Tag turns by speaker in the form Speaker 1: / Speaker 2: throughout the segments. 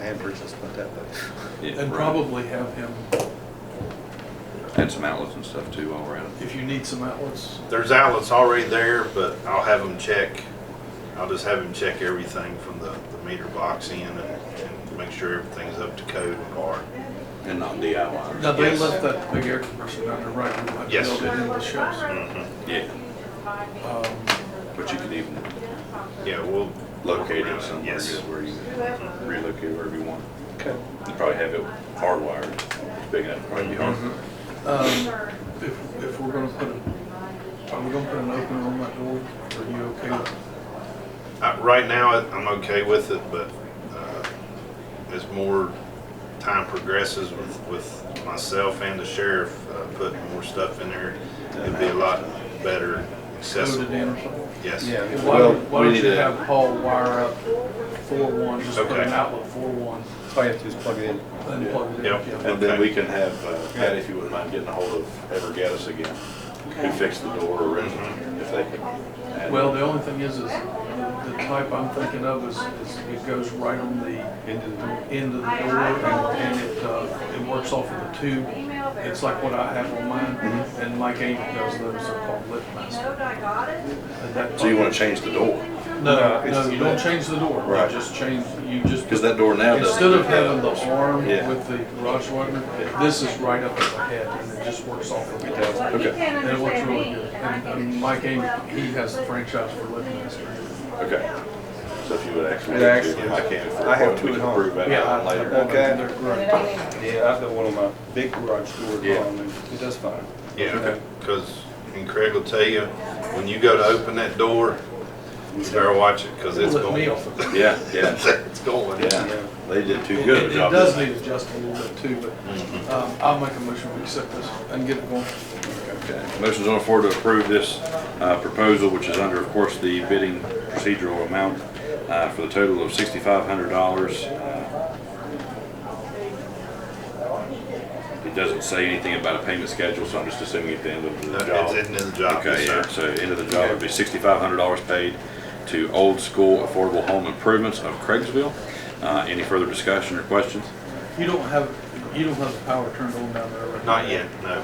Speaker 1: hamburgers and stuff like that, but
Speaker 2: Yeah,
Speaker 3: And
Speaker 2: right.
Speaker 3: probably have him,
Speaker 2: And some outlets and stuff too all around.
Speaker 3: if you need some outlets,
Speaker 4: There's outlets already there, but I'll have them check. I'll just have them check everything from the, the meter box in and, and make sure everything's up to code and par.
Speaker 2: And not DIY.
Speaker 3: now they
Speaker 4: Yes.
Speaker 3: left that big air compressor down there right, we might
Speaker 4: Yes.
Speaker 3: build it into the shelves.
Speaker 2: Yeah, Uh,
Speaker 3: Um,
Speaker 2: but you can even
Speaker 4: Yeah, we'll.
Speaker 2: locate
Speaker 4: around
Speaker 2: it
Speaker 4: it.
Speaker 2: somewhere
Speaker 4: Yes.
Speaker 2: good where you relocate it wherever you want.
Speaker 1: okay.
Speaker 2: You probably have it hardwired. It's big enough, probably be hardwired.
Speaker 3: um, If, if we're gonna put, a- are we gonna put an opener on that door? Are you okay with
Speaker 4: Uh, right now, I- I'm okay with it, but, uh, as more time progresses with, with myself and the sheriff, uh, putting more stuff in there, it'd be a lot better
Speaker 3: coded in or
Speaker 4: accessible.
Speaker 3: something?
Speaker 4: Yes.
Speaker 1: Yeah.
Speaker 3: And Why,
Speaker 1: Well,
Speaker 3: don't- why
Speaker 2: we
Speaker 3: don't
Speaker 2: need
Speaker 3: you
Speaker 2: to-
Speaker 3: have Paul wire up four one, just put an
Speaker 4: Okay.
Speaker 3: outlet four one,
Speaker 1: All you have to do is plug it in.
Speaker 3: then plug it in?
Speaker 4: Yep.
Speaker 3: yeah.
Speaker 2: And then we can have, uh, Patty, if you wouldn't mind getting a hold of Ever Gaddis again, who fixed the door originally, if they can. add-
Speaker 3: Well, the only thing is, is the the type I'm thinking of is, is it goes right on the end of the, end of the door and and it, uh, it works off of the tube. It's like what I have on mine and uh, Mike Amy does those, they're called lift master. And that-
Speaker 2: So you wanna change the door?
Speaker 3: No, no,
Speaker 1: it's-
Speaker 3: you don't change the door. You
Speaker 2: Right.
Speaker 3: just change, you just,
Speaker 2: Because that door now does.
Speaker 3: instead of having the arm
Speaker 2: Yeah.
Speaker 3: with the garage opener, this is right up at the head and it just works off of it.
Speaker 2: Okay,
Speaker 3: And it works really good. And and Mike Amy, he has the franchise for lift master.
Speaker 2: okay. So if you would actually.
Speaker 1: It actually-
Speaker 2: I can't.
Speaker 1: I have two
Speaker 2: we
Speaker 1: at
Speaker 2: can
Speaker 1: home.
Speaker 2: prove that
Speaker 3: Yeah,
Speaker 2: out
Speaker 3: I- I
Speaker 2: later.
Speaker 3: bought
Speaker 1: Okay.
Speaker 3: them. They're great.
Speaker 1: Yeah, I've got one on my big garage door,
Speaker 2: Yeah.
Speaker 1: um, and it does fine.
Speaker 4: Yeah, because, and Craig will tell you, when you go to open that door, you better watch it, because it's
Speaker 3: Let me
Speaker 4: going.
Speaker 3: off of it.
Speaker 2: Yeah, yeah,
Speaker 4: It's going.
Speaker 2: yeah. They did too
Speaker 3: It
Speaker 2: good
Speaker 3: it
Speaker 2: a job.
Speaker 3: does need adjusting a little bit too, but um, I'll make a motion to accept this and get it going.
Speaker 2: Okay. Motion's on the floor to approve this uh, proposal, which is under, of course, the bidding procedural amount uh, for the total of $6,500. It doesn't say anything about a payment schedule, so I'm just assuming at the end of the
Speaker 4: No,
Speaker 2: job.
Speaker 4: It's in the job,
Speaker 2: Okay,
Speaker 4: yes,
Speaker 2: yeah,
Speaker 4: sir.
Speaker 2: so end of the job would be sixty-five hundred dollars paid to Old School Affordable Home Improvements of Craigsville. Uh, any further discussion or questions?
Speaker 3: You don't have, you don't have the power turned on down there right now.
Speaker 4: Not yet, no.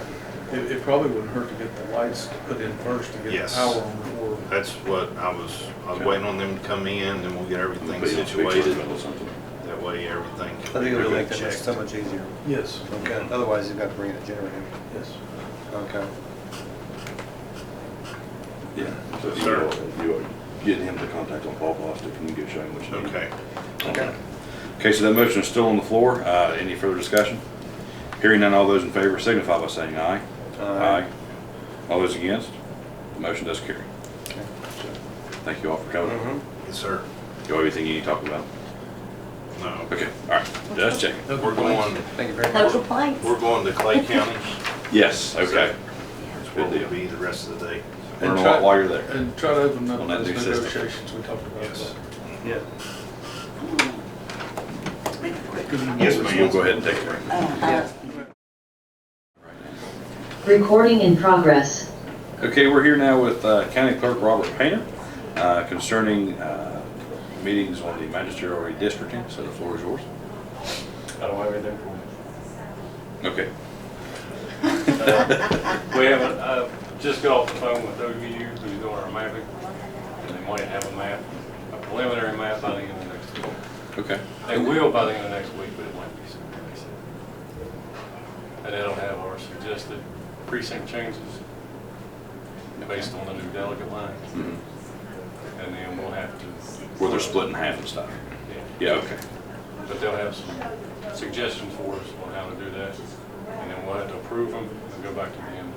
Speaker 3: It, it probably wouldn't hurt to get the lights put in first to get the
Speaker 4: Yes.
Speaker 3: power on before.
Speaker 4: That's what I was, I was
Speaker 2: Okay.
Speaker 4: waiting on them to come in, and we'll get
Speaker 2: Be-
Speaker 4: everything
Speaker 2: be
Speaker 4: situated.
Speaker 2: or something.
Speaker 4: That way, everything
Speaker 1: I think
Speaker 4: can be
Speaker 1: it'll make
Speaker 4: really
Speaker 1: that much-
Speaker 4: checked.
Speaker 1: so much easier.
Speaker 3: Yes,
Speaker 1: Okay, otherwise you've got to bring in a generator.
Speaker 3: yes.
Speaker 1: Okay.
Speaker 2: Yeah. So
Speaker 4: Yes,
Speaker 2: you
Speaker 4: sir.
Speaker 2: are, you are getting him to contact on Paul Bostic and you can go show him what you need.
Speaker 4: Okay.
Speaker 2: Okay. Okay, so that motion is still on the floor. Uh, any further discussion? Hearing none, all those in favor signify by saying aye.
Speaker 1: Aye.
Speaker 2: All those against? The motion does carry.
Speaker 1: Okay.
Speaker 2: So, Thank you all for coming.
Speaker 1: Mhm.
Speaker 4: Yes, sir.
Speaker 2: Do everything you need to talk about.
Speaker 4: No.
Speaker 2: Okay, all right, just checking.
Speaker 4: We're going,
Speaker 1: Thank you very much.
Speaker 5: Local plates.
Speaker 4: we're going to Clay County.
Speaker 2: Yes, okay.
Speaker 4: That's where we'll be the rest of the day.
Speaker 2: And while, while you're there.
Speaker 3: And try to open up
Speaker 2: On that
Speaker 3: those
Speaker 2: new system.
Speaker 3: negotiations we talked about.
Speaker 4: Yes.
Speaker 1: Yeah.
Speaker 4: Yes,
Speaker 2: So
Speaker 4: ma'am.
Speaker 2: We'll go ahead and take a break.
Speaker 5: Uh, Recording in progress.
Speaker 2: Okay, we're here now with uh, County Clerk Robert Painter uh, concerning uh, meetings on the magisterial redistricting, so the floor is yours.
Speaker 6: I don't have anything.
Speaker 2: Okay.
Speaker 6: We haven't, I just got off the phone with OU, who's doing our mapping. They might have a map, a preliminary map by the end of next week.
Speaker 2: Okay.
Speaker 6: They will by the end of next week, but it might be sooner, they said. And that'll have our suggested precinct changes based on the new delegate lines.
Speaker 2: Mhm.
Speaker 6: And then we'll have to.
Speaker 2: Where they're split in half and stuff.
Speaker 6: Yeah.
Speaker 2: Yeah, okay.
Speaker 6: But they'll have some suggestions for us on how to do that, and then we'll have to approve them and go back to the end.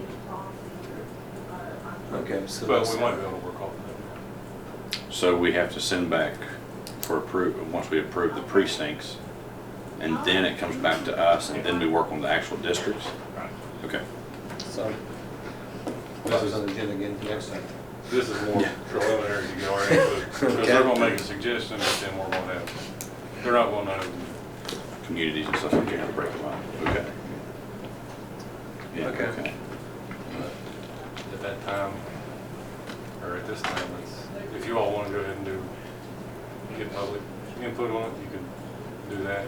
Speaker 1: Okay, so.
Speaker 6: But
Speaker 1: that's-
Speaker 6: we might be able to work off of
Speaker 2: So we have to send back for approve, once we approve the precincts, and then it comes back to us, and then we work on the actual districts?
Speaker 6: that. Right.
Speaker 2: Okay.
Speaker 1: So.
Speaker 6: This is-
Speaker 1: That's on the agenda again for next time.
Speaker 6: This is more preliminary to get our input, because they're gonna make a suggestion, but then we're gonna have, they're not gonna know.
Speaker 2: Communities and stuff, like that, to break them up. Okay. Yeah,
Speaker 1: Okay.
Speaker 2: okay.
Speaker 6: At that time, or at this time, it's, if you all wanna go ahead and do, get public input on it, you can do that.